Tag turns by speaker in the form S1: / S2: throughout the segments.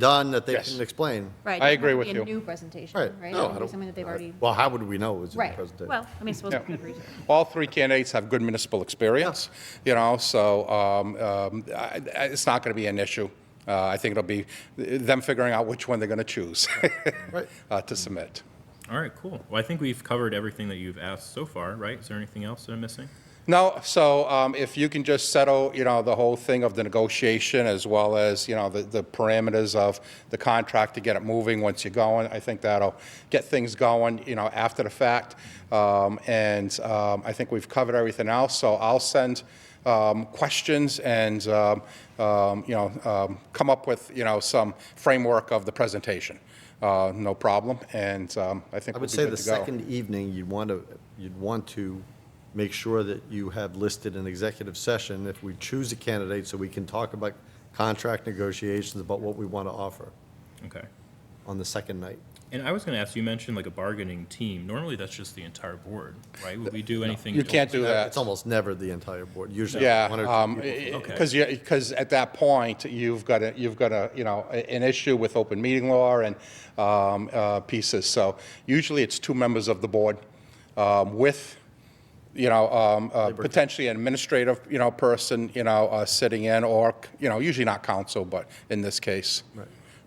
S1: done that they
S2: Yes.
S1: can explain.
S3: Right.
S2: I
S3: it doesn't
S2: agree
S3: have to
S2: with
S3: be
S2: you.
S3: a new presentation,
S1: Right.
S3: right?
S1: No, I
S3: It would be
S1: don't-
S3: Something that they've already,
S1: Well, how would we know it was in the
S3: right.
S1: presentation?
S3: Well, I mean, I suppose
S2: Yeah.
S3: we could research.
S2: All three candidates have good municipal experience, you know, so um, um, I- I- it's not going to be an issue. Uh, I think it'll be them figuring out which one they're going to choose
S1: Right.
S2: uh, to submit.
S4: All right, cool. Well, I think we've covered everything that you've asked so far, right? Is there anything else that I'm missing?
S2: No, so um, if you can just settle, you know, the whole thing of the negotiation as well as, you know, the the parameters of the contract to get it moving once you're going, I think that'll get things going, you know, after the fact. Um, And um, I think we've covered everything else, so I'll send um, questions and, um, um, you know, um, come up with, you know, some framework of the presentation. Uh, No problem, and um, I think
S1: I
S2: we'll
S1: would
S2: be
S1: say
S2: good
S1: the
S2: to go.
S1: second evening, you'd want to, you'd want to make sure that you have listed an executive session if we choose a candidate, so we can talk about contract negotiations, about what we want to offer
S4: Okay.
S1: on the second night.
S4: And I was going to ask, you mentioned like a bargaining team. Normally, that's just the entire board, right? Would we do anything?
S2: You can't do that.
S1: It's almost never the entire board, usually one or two
S2: Yeah, um,
S1: people.
S4: Okay.
S2: because you, because at that point, you've got a, you've got a, you know, a- an issue with open meeting law and um, uh, pieces. So usually it's two members of the board um, with, you know, um, uh, potentially an administrative, you know, person, you know, uh, sitting in or, you know, usually not counsel, but in this case.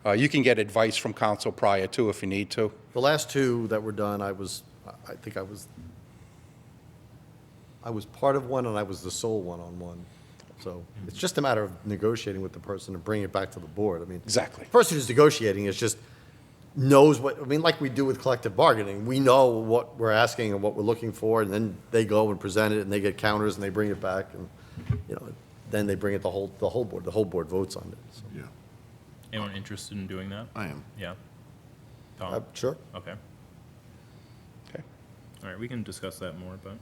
S2: Uh, You can get advice from counsel prior to if you need to.
S1: The last two that were done, I was, I- I think I was, I was part of one and I was the sole one on one. So it's just a matter of negotiating with the person and bringing it back to the board. I mean.
S2: Exactly.
S1: the Person who's negotiating is just knows what, I mean, like we do with collective bargaining. We know what we're asking and what we're looking for and then they go and present it and they get counters and they bring it back and, you know, then they bring it the whole, the whole board, the whole board votes on it. So,
S5: Yeah,
S4: Anyone interested in doing that?
S5: I am.
S4: Yeah.
S1: uh,
S4: Tom?
S1: Sure.
S4: Okay.
S2: Okay.
S4: All right, we can discuss that more, but.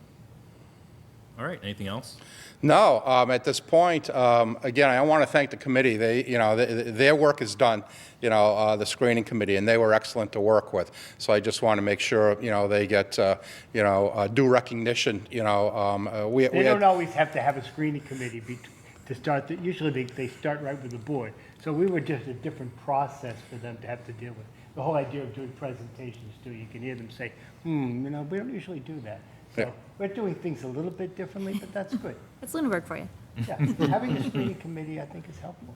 S4: All right, anything else?
S2: No, um, at this point, um, again, I want to thank the committee. They, you know, th- th- their work is done, you know, uh, the screening committee, and they were excellent to work with. So I just want to make sure, you know, they get, uh, you know, uh, due recognition, you know. um, uh, we- we
S6: They
S2: had-
S6: don't always have to have a screening committee be, to start, the- usually they, they start right with the board. So we were just a different process for them to have to deal with. The whole idea of doing presentations too, you can hear them say, hmm, you know, we don't usually do that.
S2: Yeah.
S6: So we're doing things a little bit differently, but that's good.
S3: That's Lunenburg for you.
S6: Yeah, having a screening committee, I think, is helpful.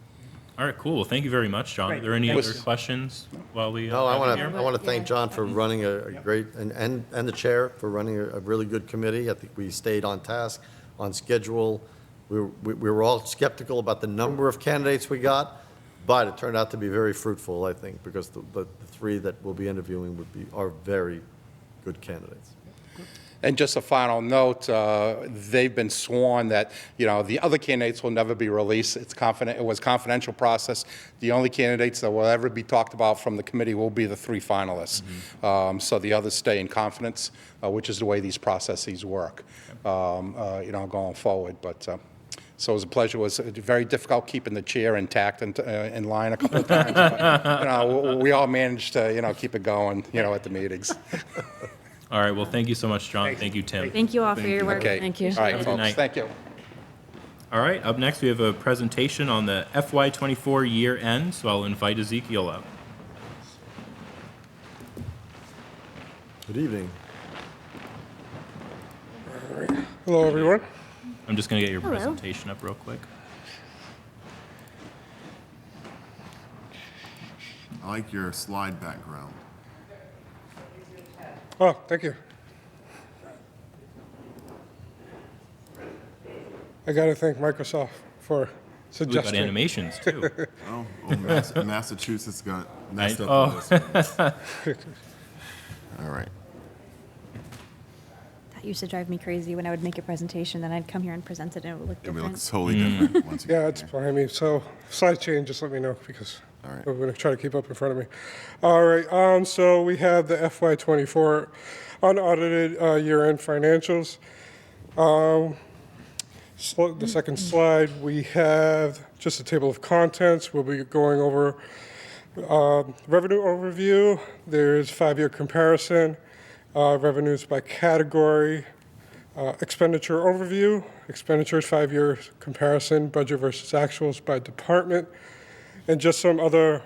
S4: All right, cool. Well, thank you very much, John. Are
S6: Great,
S4: there any
S6: thank
S4: other
S2: you.
S4: questions while we? uh,
S1: No, I want to,
S3: here.
S1: I want to thank John for running a a great, and, and and the chair for running a a really good committee. I think we stayed on task, on schedule. We, were- we we were all skeptical about the number of candidates we got, but it turned out to be very fruitful, I think, because the, the the three that we'll be interviewing would be, are very good candidates.
S2: And just a final note, uh, they've been sworn that, you know, the other candidates will never be released. It's confident, it was confidential process. The only candidates that will ever be talked about from the committee will be the three finalists. Um, So the others stay in confidence, uh, which is the way these processes work, um, uh, you know, going forward. But, uh, so it was a pleasure. It was very difficult keeping the chair intact and uh, in line a couple of times. But, You know, we- we all managed to, you know, keep it going, you know, at the meetings.
S4: All right, well, thank you so much, John. Thank you, Tim.
S3: Thank you all for your work.
S2: Okay.
S7: Thank you.
S2: All right, folks,
S4: night.
S2: thank you.
S4: All right, up next, we have a presentation on the FY24 year end, so I'll invite Ezekiel up.
S1: Good evening.
S2: Hello, everyone.
S4: I'm just going to get your presentation up real quick.
S5: I like your slide background.
S2: Oh, thank you.
S8: I got to thank Microsoft for
S4: We've got
S8: suggesting.
S4: animations too.
S5: Oh, oh, Mass- Massachusetts got messed
S4: I-
S5: up with this. one. All right.
S3: That used to drive me crazy when I would make a presentation, then I'd come here and present it and it would look
S5: It
S3: different.
S5: looks totally different once you
S8: Yeah,
S5: get
S8: it's
S5: there.
S8: behind me. So slide change, just let me know because
S5: All right.
S8: we're going to try to keep up in front of me. All right. Um, so we have the FY24 unaudited uh, year-end financials. Um, Sl- the second slide, we have just a table of contents. We'll be going over um, revenue overview. There's five-year comparison, uh, revenues by category, uh, expenditure overview, expenditures five-year comparison, budget versus actuals by department, and just some other